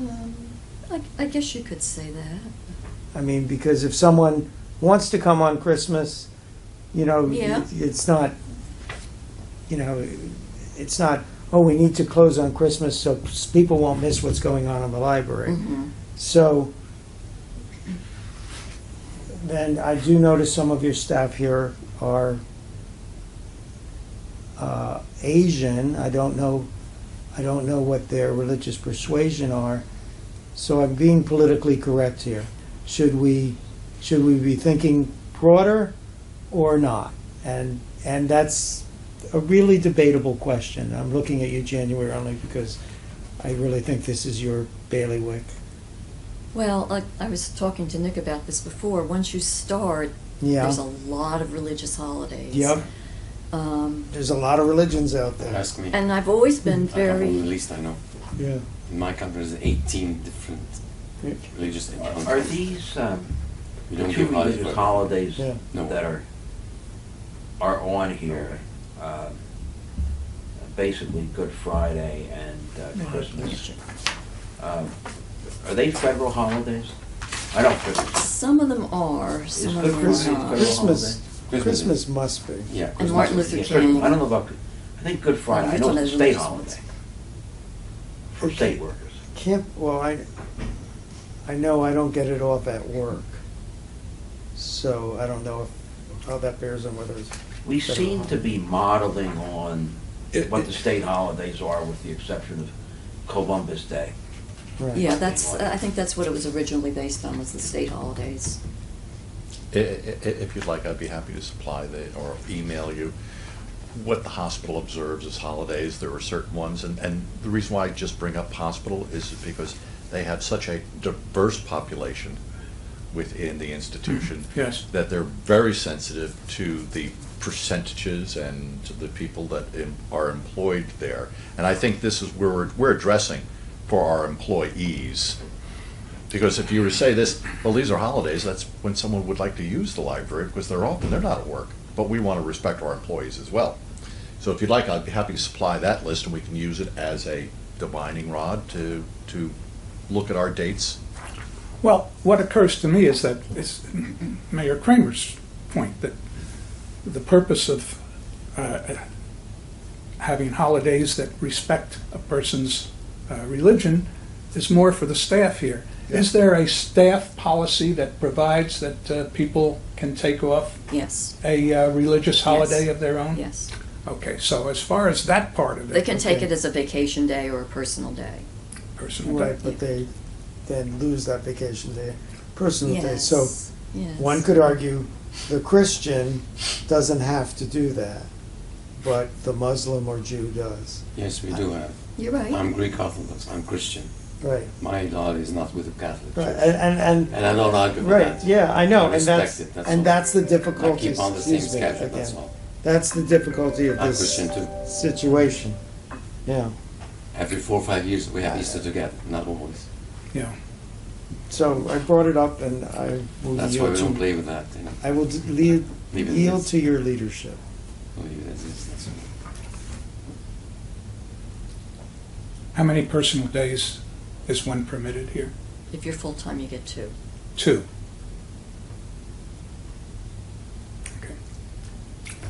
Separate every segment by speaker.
Speaker 1: Um, I, I guess you could say that.
Speaker 2: I mean, because if someone wants to come on Christmas, you know,
Speaker 1: Yeah.
Speaker 2: it's not, you know, it's not, oh, we need to close on Christmas so s- people won't miss what's going on in the library. So then I do notice some of your staff here are uh, Asian. I don't know, I don't know what their religious persuasion are. So I'm being politically correct here. Should we, should we be thinking broader or not? And, and that's a really debatable question. I'm looking at you, January, only because I really think this is your bailiwick.
Speaker 1: Well, I, I was talking to Nick about this before. Once you start,
Speaker 2: Yeah.
Speaker 1: there's a lot of religious holidays.
Speaker 2: Yep.
Speaker 1: Um,
Speaker 2: There's a lot of religions out there.
Speaker 3: Don't ask me.
Speaker 1: and I've always been
Speaker 3: I come from the Middle
Speaker 1: very.
Speaker 3: East, I know.
Speaker 2: Yeah.
Speaker 3: In my country, there's 18 different religious entities.
Speaker 4: Are these um,
Speaker 3: We don't
Speaker 4: two
Speaker 3: give holidays,
Speaker 4: religious
Speaker 3: but-
Speaker 4: holidays
Speaker 2: Yeah.
Speaker 3: No.
Speaker 4: that are, are on here? um, Basically Good Friday and uh, Christmas. um, Are they federal holidays? I don't, think-
Speaker 1: Some of them are, some
Speaker 4: It's
Speaker 1: of
Speaker 4: good
Speaker 1: them
Speaker 4: Christmas,
Speaker 1: are not.
Speaker 4: good
Speaker 2: Christmas,
Speaker 3: Christmas.
Speaker 2: Christmas must be.
Speaker 3: Yeah,
Speaker 1: And
Speaker 3: Christmas
Speaker 1: Martin
Speaker 3: is-
Speaker 1: Luther
Speaker 4: Yes,
Speaker 1: King.
Speaker 4: I don't know about, I think Good Friday, I know it's a state holiday for state workers.
Speaker 2: Can't, well, I, I know I don't get it off at work. So I don't know if, how that bears on whether it's.
Speaker 4: We
Speaker 2: federal
Speaker 4: seem to be modeling on
Speaker 5: It-
Speaker 4: what the state holidays are with the exception of Columbus Day.
Speaker 2: holiday. Right.
Speaker 1: Yeah, that's. I think that's what it was originally based on was the state holidays.
Speaker 5: I- I- i- If you'd like, I'd be happy to supply the, or email you what the hospital observes as holidays. There are certain ones, and, and the reason why I just bring up hospital is because they have such a diverse population within the institution.
Speaker 6: Yes.
Speaker 5: That they're very sensitive to the percentages and to the people that em- are employed there. And I think this is where we're, we're addressing for our employees. Because if you were to say this, well, these are holidays, that's when someone would like to use the library because they're open, they're not at work. But we want to respect our employees as well. So if you'd like, I'd be happy to supply that list and we can use it as a divining rod to, to look at our dates.
Speaker 6: Well, what occurs to me is that it's Mayor Kramer's point that the purpose of uh, having holidays that respect a person's uh, religion is more for the staff here. Is there a staff policy that provides that uh, people can take off
Speaker 1: Yes,
Speaker 6: a uh, religious holiday
Speaker 1: Yes.
Speaker 6: of their own?
Speaker 1: yes.
Speaker 6: Okay, so as far as that part of it.
Speaker 1: They can take
Speaker 2: Okay.
Speaker 1: it as a vacation day or a personal day.
Speaker 6: Personal day.
Speaker 2: Right, but they then lose that vacation day, personal day.
Speaker 1: yes.
Speaker 2: So
Speaker 1: yes.
Speaker 2: one could argue the Christian doesn't have to do that, but the Muslim or Jew does.
Speaker 3: Yes, we do have.
Speaker 1: You're right.
Speaker 3: I'm Greek Orthodox, I'm Christian.
Speaker 2: Right,
Speaker 3: My holiday is not with the Catholic
Speaker 2: right.
Speaker 3: Church.
Speaker 2: And, and,
Speaker 3: And I don't argue with
Speaker 2: Right,
Speaker 3: that.
Speaker 2: yeah, I
Speaker 3: I
Speaker 2: know, and
Speaker 3: respect
Speaker 2: that's,
Speaker 3: it, that's
Speaker 2: and
Speaker 3: all.
Speaker 2: that's the
Speaker 3: I
Speaker 2: difficulty,
Speaker 3: keep on the same
Speaker 2: excuse me,
Speaker 3: schedule, that's
Speaker 2: again.
Speaker 3: all.
Speaker 2: That's the difficulty of
Speaker 3: I'm Christian
Speaker 2: this
Speaker 3: too.
Speaker 2: situation, yeah.
Speaker 3: Every four or five years, we have Easter together, not always.
Speaker 6: Yeah.
Speaker 2: So I brought it up and I will
Speaker 3: That's why
Speaker 2: yield
Speaker 3: we don't
Speaker 2: to,
Speaker 3: play with that, you know.
Speaker 2: I will d- lead-
Speaker 3: Leave it
Speaker 2: yield
Speaker 3: as-
Speaker 2: to your leadership.
Speaker 3: We'll leave it as is, that's all.
Speaker 6: How many personal days is one permitted here?
Speaker 1: If you're full time, you get two.
Speaker 6: Two. Okay.
Speaker 5: I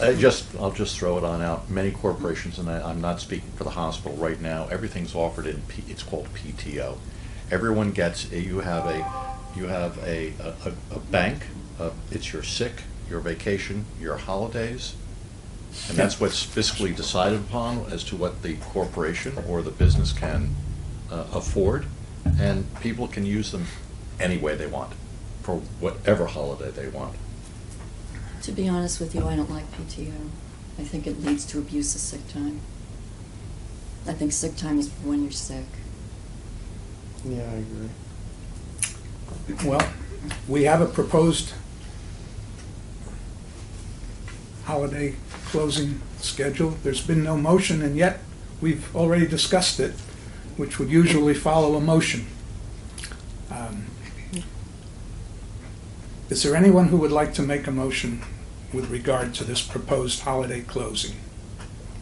Speaker 5: Uh, just, I'll just throw it on out. Many corporations, and I, I'm not speaking for the hospital right now, everything's offered in, P- it's called PTO. Everyone gets, you have a, you have a, a, a- a bank, uh, it's your sick, your vacation, your holidays. And that's what's fiscally decided upon as to what the corporation or the business can uh, afford. And people can use them any way they want, for whatever holiday they want.
Speaker 1: To be honest with you, I don't like PTO. I think it leads to abuse of sick time. I think sick time is when you're sick.
Speaker 2: Yeah, I agree.
Speaker 6: Well, we have a proposed holiday closing schedule. There's been no motion, and yet we've already discussed it, which would usually follow a motion. Um, Is there anyone who would like to make a motion with regard to this proposed holiday closing?